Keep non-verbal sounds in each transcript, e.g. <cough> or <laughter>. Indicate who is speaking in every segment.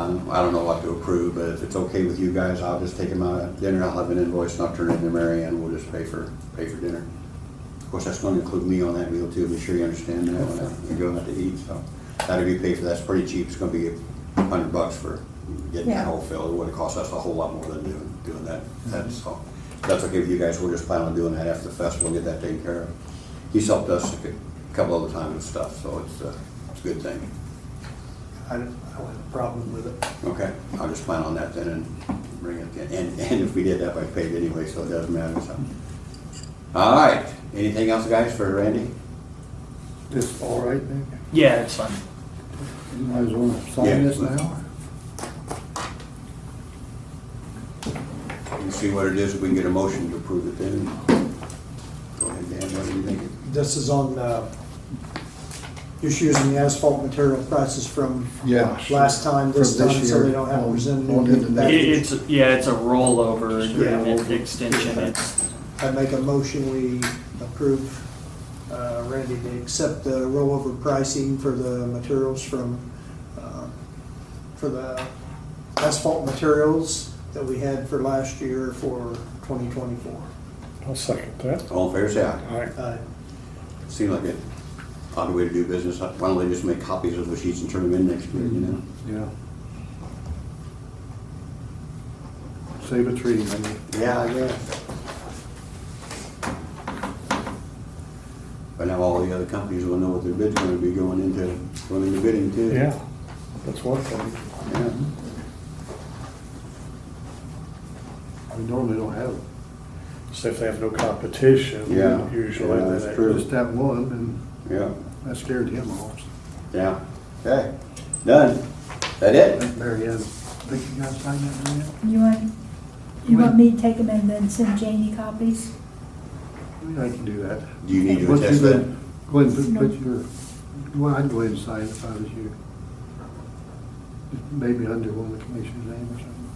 Speaker 1: Um, I don't know what to approve, but if it's okay with you guys, I'll just take them out at dinner. I'll have an invoice and I'll turn it in to Mary Ann. We'll just pay for, pay for dinner. Of course, that's gonna include me on that meal too. Be sure you understand that when you're going out to eat, so. That'll be paid for. That's pretty cheap. It's gonna be a hundred bucks for getting
Speaker 2: Yeah.
Speaker 1: that whole fill. It would have cost us a whole lot more than doing, doing that. That's all. If That's okay with you guys. We'll just plan on doing that after the festival, get that taken care of. He's helped us a couple other times with stuff, so it's, uh, it's a good thing.
Speaker 3: I don't, I don't have a problem with it.
Speaker 1: Okay, I'll just plan on that then and bring it in. And, and if we did that, I paid anyway, so it doesn't matter, so. All right, anything else, guys, for Randy?
Speaker 4: This all right, Nick?
Speaker 5: Yeah, it's fine.
Speaker 4: You might as well
Speaker 1: Yeah.
Speaker 4: sign this now.
Speaker 1: We'll see what it is, if we can get a motion to approve it then. Go ahead, Dan, what do you think?
Speaker 3: This is on, uh, just using the asphalt material prices from
Speaker 4: Yeah.
Speaker 3: last time, this
Speaker 4: From
Speaker 3: time, so they
Speaker 4: year
Speaker 3: don't have to
Speaker 4: on-
Speaker 3: present a
Speaker 4: on
Speaker 3: new
Speaker 4: into
Speaker 3: bid
Speaker 4: next
Speaker 5: It-
Speaker 3: package.
Speaker 5: It's, yeah, it's a rollover agreement
Speaker 3: Yeah.
Speaker 5: extension. It's,
Speaker 3: I make a motion, we approve, uh, Randy to accept the rollover pricing for the materials from, uh, for the asphalt materials that we had for last year for twenty twenty-four. Uh,
Speaker 6: I'll second that.
Speaker 1: All in favor, say aye.
Speaker 6: Aye.
Speaker 1: Seemed like a odd way to do business. Why don't they just make copies of the sheets and turn them in next year, you know?
Speaker 4: Yeah. Save a tree, maybe.
Speaker 1: Yeah, I guess. But now all the other companies will know what their bid's gonna be going into, going into bidding too.
Speaker 6: Yeah, that's one thing.
Speaker 1: Yeah.
Speaker 4: We normally don't have it.
Speaker 6: So if they have no competition,
Speaker 1: Yeah,
Speaker 6: usually
Speaker 1: yeah,
Speaker 6: they.
Speaker 1: that's true.
Speaker 4: Just that one, and
Speaker 1: Yeah,
Speaker 4: that scared him off.
Speaker 1: yeah. Okay, done. That it?
Speaker 4: That Mary Ann, think you guys signed that, Mary Ann?
Speaker 2: You want, you want me to take them and then send Janie copies?
Speaker 4: Yeah, I can do that.
Speaker 1: Do you need to
Speaker 4: Once you
Speaker 1: attest that?
Speaker 4: Go ahead and put- put your, well, I'd go ahead and sign it if I was you. Maybe under one of the commissioner's name or something.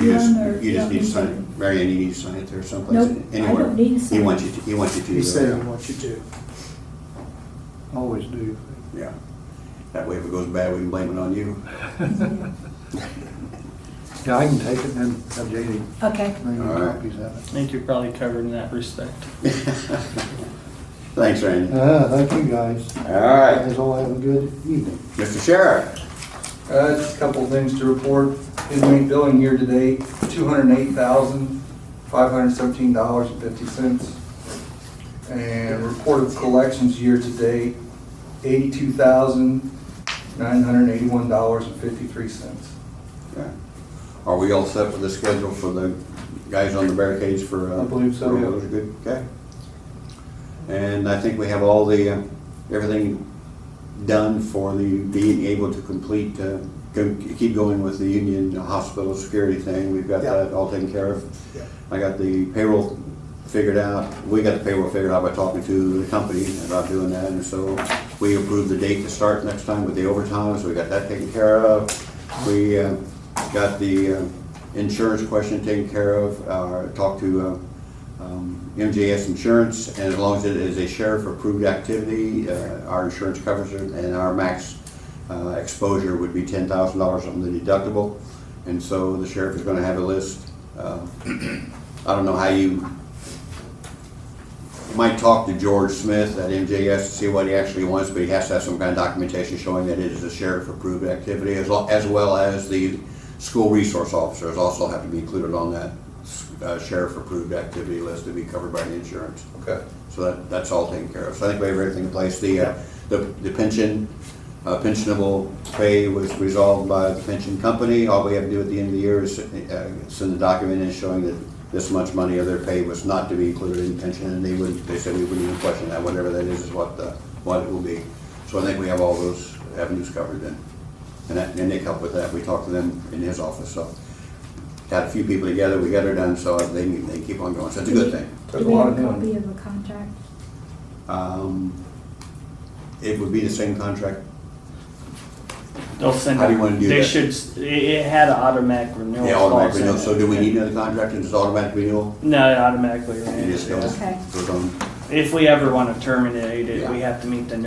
Speaker 1: You just,
Speaker 2: Done or
Speaker 1: you just need to
Speaker 2: don't need
Speaker 1: sign
Speaker 2: to?
Speaker 1: it. Mary Ann, you need to sign it there someplace?
Speaker 2: Nope, I don't
Speaker 1: Anywhere.
Speaker 2: need to sign
Speaker 1: He
Speaker 2: it.
Speaker 1: wants you to, he wants you to.
Speaker 3: He said he
Speaker 1: yeah.
Speaker 3: wants you to.
Speaker 4: Always
Speaker 1: <laughs>
Speaker 4: do.
Speaker 1: Yeah. That way if it goes bad, we can blame it on you. <laughs>
Speaker 4: Yeah, I can take it and then have Janie
Speaker 2: Okay.
Speaker 4: bring
Speaker 1: All
Speaker 4: you
Speaker 1: right.
Speaker 4: copies of
Speaker 5: I
Speaker 4: it.
Speaker 5: think you're probably covered in that respect.
Speaker 1: Thanks,
Speaker 3: Uh,
Speaker 1: Randy.
Speaker 4: Ah, thank you, guys.
Speaker 1: All right.
Speaker 4: Guys all have a good evening.
Speaker 1: Mr. Sheriff?
Speaker 7: Uh, Just a couple of things to report. Inmate billing year to date, $208,517.50. And reported collections year to date, $82,981.53.
Speaker 1: Okay. Are we all set with the schedule for the guys on the barricades for? uh,
Speaker 7: I believe so, yeah.
Speaker 1: for- Good, okay. And I think we have all the, uh, everything done for the, being able to complete, uh, go- keep going with the union hospital security thing. We've got
Speaker 3: Yeah.
Speaker 1: that all taken care of.
Speaker 3: Yeah.
Speaker 1: I got the payroll figured out, we got the payroll figured out by talking to the company about doing that, and so we approved the date to start next time with the overtime, so we got that taken care of. We uh, got the uh, insurance question taken care of, uh, talked to uh, um, MJS Insurance, and as long as it is a sheriff-approved activity, uh, our insurance covers it, and our max uh, exposure would be ten thousand dollars on the deductible, and so the sheriff is gonna have a list uh, I don't know how you, you might talk to George Smith at MJS to see what he actually wants, but he has to have some kind of documentation showing that it is a sheriff-approved activity, as, lo- as well as the school resource officers also have to be included on that uh, sheriff-approved activity list to be covered by the insurance.
Speaker 7: Okay.
Speaker 1: So that, that's all taken care of. So I think we have everything in place. The, uh, the the pension, uh, pensionable pay was resolved by the pension company. All we have to do at the end of the year is uh, send a document in showing that this much money of their pay was not to be included in pension, and they would, they said we wouldn't even question that. Whatever that is, is what the, what it will be. So I think we have all those avenues covered then. And that, and Nick helped with that. We talked to them in his office, so. Got a few people together, we got her done, so they, they keep on going. So it's a good thing.
Speaker 7: Took
Speaker 2: Do
Speaker 7: a
Speaker 2: we
Speaker 7: lot
Speaker 2: have
Speaker 7: of
Speaker 2: a
Speaker 7: time.
Speaker 2: copy of a contract?
Speaker 1: Um, It would be the same contract.
Speaker 5: They'll send.
Speaker 1: How do you wanna do
Speaker 5: They
Speaker 1: that?
Speaker 5: should, s- it, it had an automatic renewal.
Speaker 1: Yeah, automatic
Speaker 5: clause in
Speaker 1: renewal.
Speaker 5: it.
Speaker 1: So do we need another contract and it's automatic renewal?
Speaker 5: No, it automatically
Speaker 1: You
Speaker 5: renews.
Speaker 1: just go-
Speaker 2: Okay.
Speaker 1: goes on.
Speaker 5: If we ever want to terminate it, we
Speaker 1: Yeah.
Speaker 5: have to meet the